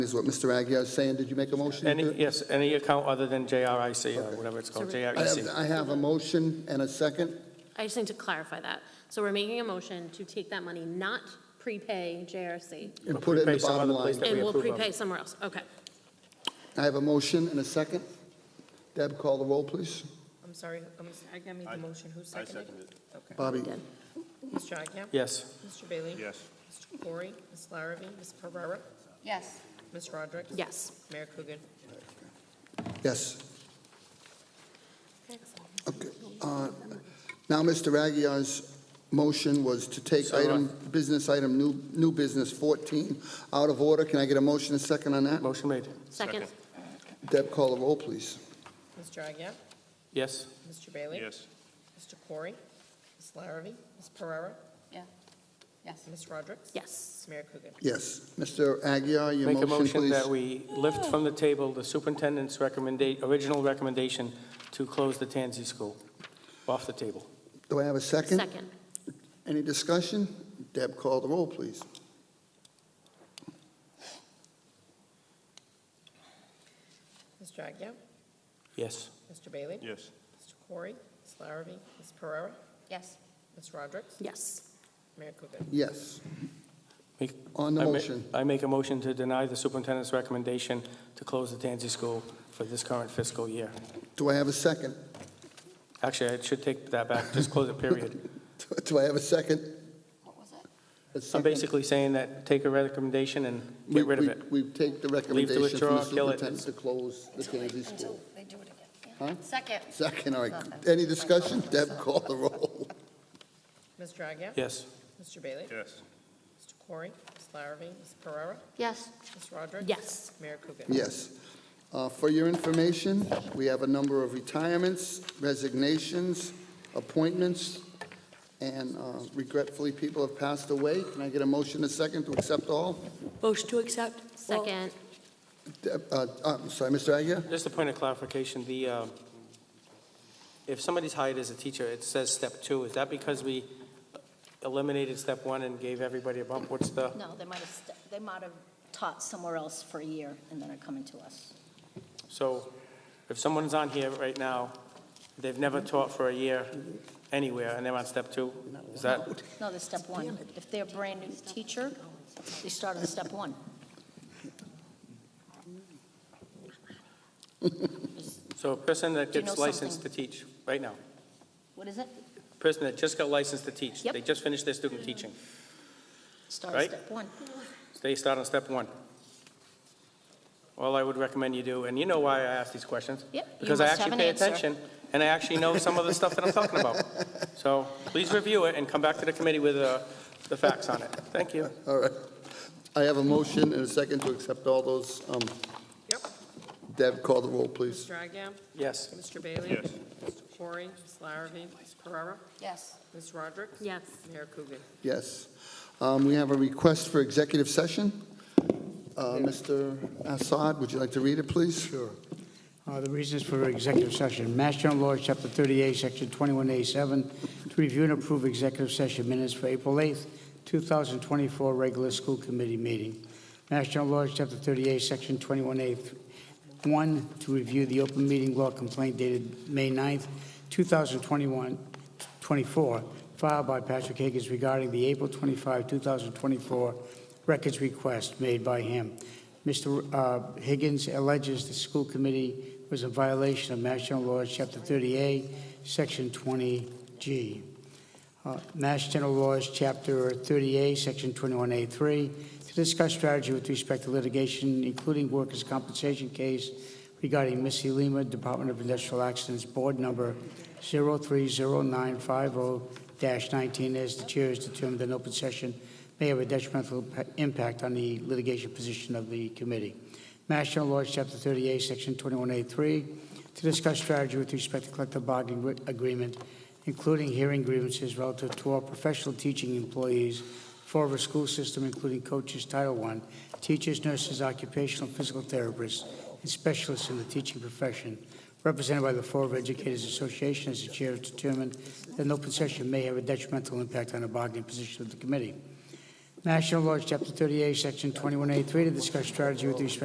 Is what Mr. Aguirre is saying, did you make a motion? to Any, it? yes, any account other than JRIC, or whatever it's called, E I have, JREC. I have a motion and a second. I just need to clarify that. So we're making a motion to take that money, not prepay JRC, And put it in prepay the some bottom other place line. that- and we we'll approve of. prepay somewhere else. Okay. I have a motion and a second. Deb, call the roll, please. I'm sorry, I'm, I made the motion, who seconded? I seconded. Okay. Bobby? Mr. Agia? Yes, Mr. Bailey? Yes. Mr. Corey? Ms. Larrabee? Ms. Pereira? Yes. Ms. Roderick? Yes. Mayor Coogan? Yes. Okay. uh, Now, Mr. Aguirre's motion was to take So, uh, item, business item, new, new business 14, out of order. Can I get a motion and a second on that? motion made. Second? Deb, call the roll, please. Mr. Agia? Yes, Mr. Bailey? Yes. Mr. Corey? Ms. Larrabee? Ms. Pereira? Yeah. Yes. Ms. Roderick? Yes. Mayor Coogan? Yes. Mr. Aguirre, your make a motion, motion that please. we lift from the table the superintendent's recommenda, original recommendation to close the Tansy School, off the table. Do I have a second? Second? Any discussion? Deb, call the roll, please. Mr. Agia? Yes, Mr. Bailey? Yes. Mr. Corey? Ms. Larrabee? Ms. Pereira? Yes. Ms. Roderick? Yes. Mayor Coogan? Yes. Make- On the I ma- motion, I make a motion to deny the superintendent's recommendation to close the Tansy School for this current fiscal year. do I have a second? Actually, I should take that back, just close it, period. Do I have a second? What was it? A I'm second? basically saying that, take a recommendation and We- get rid of we- it. We take the recommendation from the withdraw, kill it. superintendent to close the Tansy School. they do it again. Huh? Second. Second, all right. Any discussion? Deb, call the roll. Mr. Agia? Yes, Mr. Bailey? Yes. Mr. Corey? Ms. Larrabee? Ms. Pereira? Yes. Ms. Roderick? Yes. Mayor Coogan? Yes. Uh, For your information, we have a number of retirements, resignations, appointments, and uh, regretfully, people have passed away. Can I get a motion, a second, to accept all? Motion to accept? Second? Deb- uh, uh, I'm sorry, Mr. Aguirre? just a point of clarification, the, um, if somebody's hired as a teacher, it says step two, is that because we eliminated step one and gave everybody a bump? What's the, No, they might have, st- they might have taught somewhere else for a year and then are coming to us. so if someone's on here right now, they've never taught for a year anywhere, and they're on step two, is that? No, they're step one. If they're a brand-new teacher, they start on step one. So a person that Do you know gets licensed to teach, right now, What is it? a person that just got licensed to teach, Yep. they just finished their student teaching, Start on Right. step one. they start on step one. All I would recommend you do, and you know why I ask these questions. Yep, you Because I must have actually an pay answer. attention, and I actually know some of the stuff that I'm talking about. So please review it and come back to the committee with uh, the facts on it. Thank you. All right. I have a motion and a second to accept all those. Um, Yep. Deb, call the roll, please. Mr. Agia? Yes, Mr. Bailey? Yes. Mr. Corey? Ms. Larrabee? Ms. Pereira? Yes. Ms. Roderick? Yes. Mayor Coogan? Yes. Um, We have a request for executive session. Uh, Mr. Assad, would you like to read it, please? Sure. Uh, The reasons for executive session, Mass General Law, Chapter 38, Section 21A7, to review and approve executive session minutes for April 8th, 2024, regular school committee meeting. Mass General Law, Chapter 38, Section 21A1, to review the open meeting law complaint dated May 9th, 2021, 24, filed by Patrick Higgins regarding the April 25, 2024 records request made by him. Mr. uh, Higgins alleges the school committee was in violation of Mass General Laws, Chapter 38, Section 20G. Uh, Mass General Laws, Chapter 38, Section 21A3, to discuss strategy with respect to litigation, including workers' compensation case regarding Missy Lima, Department of Industrial Accidents, Board Number 030950-19, as the chair has determined an open session may have a detrimental pa- impact on the litigation position of the committee. Mass General Laws, Chapter 38, Section 21A3, to discuss strategy with respect to collective bargaining re- agreement, including hearing grievances relative to all professional teaching employees for our school system, including coaches, Title I, teachers, nurses, occupational physical therapists, and specialists in the teaching profession, represented by the Florida Educators Association, as the chair has determined that an open session may have a detrimental impact on the bargaining position of the committee. National Law, Chapter 38, Section 21A3, to discuss strategy with respect